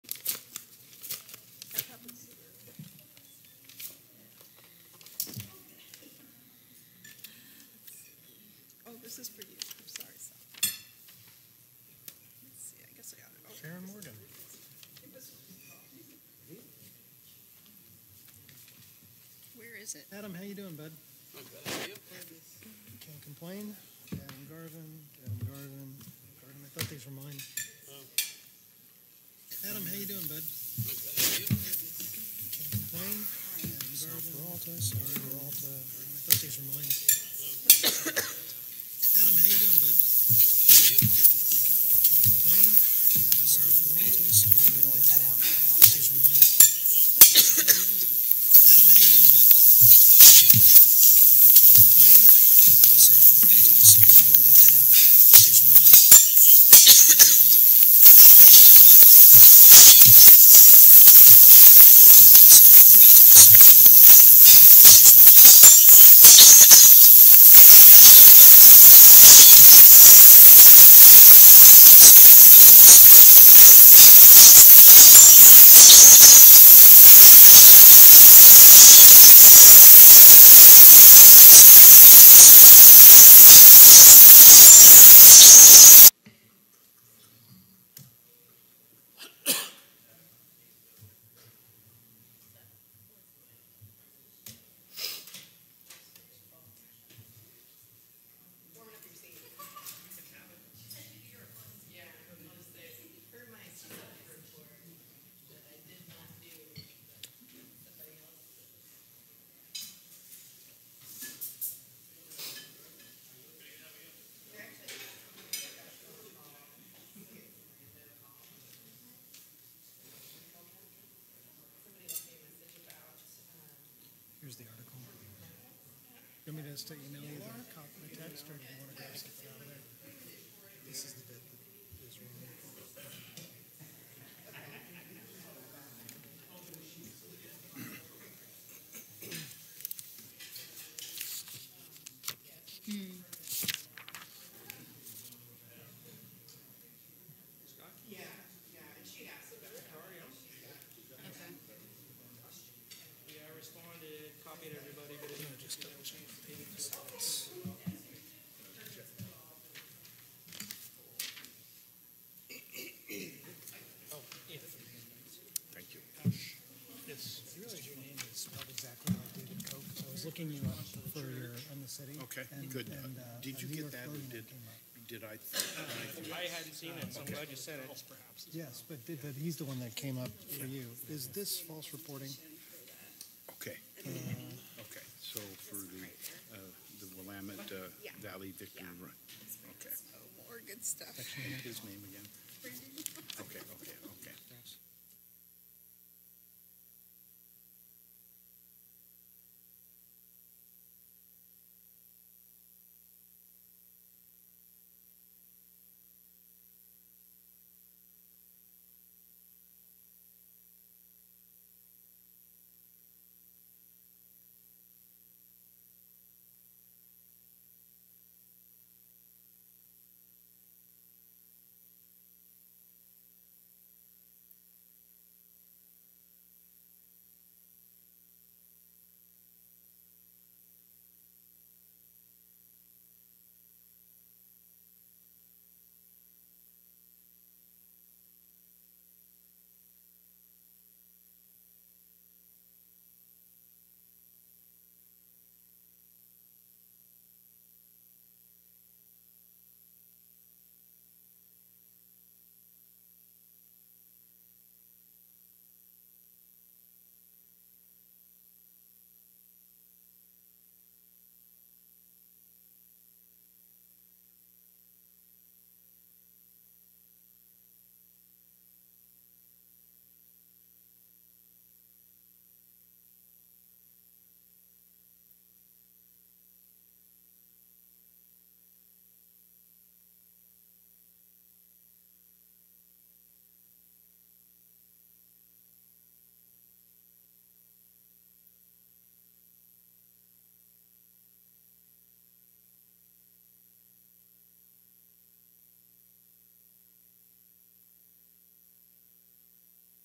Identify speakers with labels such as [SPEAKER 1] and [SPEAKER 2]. [SPEAKER 1] Oh, this is for you. I'm sorry, Sal. Let's see, I guess I got it. Oh,
[SPEAKER 2] Sharon Morgan.
[SPEAKER 1] Where is it?
[SPEAKER 2] Adam, how you doing, bud? Can't complain. Adam Garvin, Adam Garvin, Garvin. I thought these were mine. Adam, how you doing, bud? Can't complain. Adam Garvin, Peralta, sorry, Peralta. Garvin. I thought these were mine. Adam, how you doing, bud? Can't complain. Adam Garvin, Peralta, sorry, Peralta. I thought these were mine. Adam, how you doing, bud? Here's the article. You want me to just let you know either cop the text or do you want to grab something out of there? This is the bit that is wrong.
[SPEAKER 3] Yeah, I responded, copied everybody, but it
[SPEAKER 2] I'm gonna just double check the page size.
[SPEAKER 4] Thank you.
[SPEAKER 2] Yes. You realize your name is spelled exactly like David Koch? So I was looking you up for your, on the city.
[SPEAKER 4] Okay,
[SPEAKER 2] and-
[SPEAKER 4] good.
[SPEAKER 2] and, uh,
[SPEAKER 4] Did
[SPEAKER 2] a
[SPEAKER 4] you
[SPEAKER 2] New
[SPEAKER 4] get
[SPEAKER 2] York
[SPEAKER 4] that or
[SPEAKER 2] Logan
[SPEAKER 4] did-
[SPEAKER 2] came up.
[SPEAKER 4] Did I,
[SPEAKER 3] I hadn't seen it, so I'm glad you said it.
[SPEAKER 2] Yes, but, did- but he's the one that came up for you. Is this false reporting?
[SPEAKER 4] okay,
[SPEAKER 2] Uh,
[SPEAKER 4] okay, so for the, uh, the Willamette uh,
[SPEAKER 1] Yeah.
[SPEAKER 4] Valley Victim
[SPEAKER 1] Yeah.
[SPEAKER 4] Run, okay.
[SPEAKER 1] Oh, more good stuff.
[SPEAKER 4] And his name again?
[SPEAKER 1] Brandon.
[SPEAKER 4] Okay, okay, okay.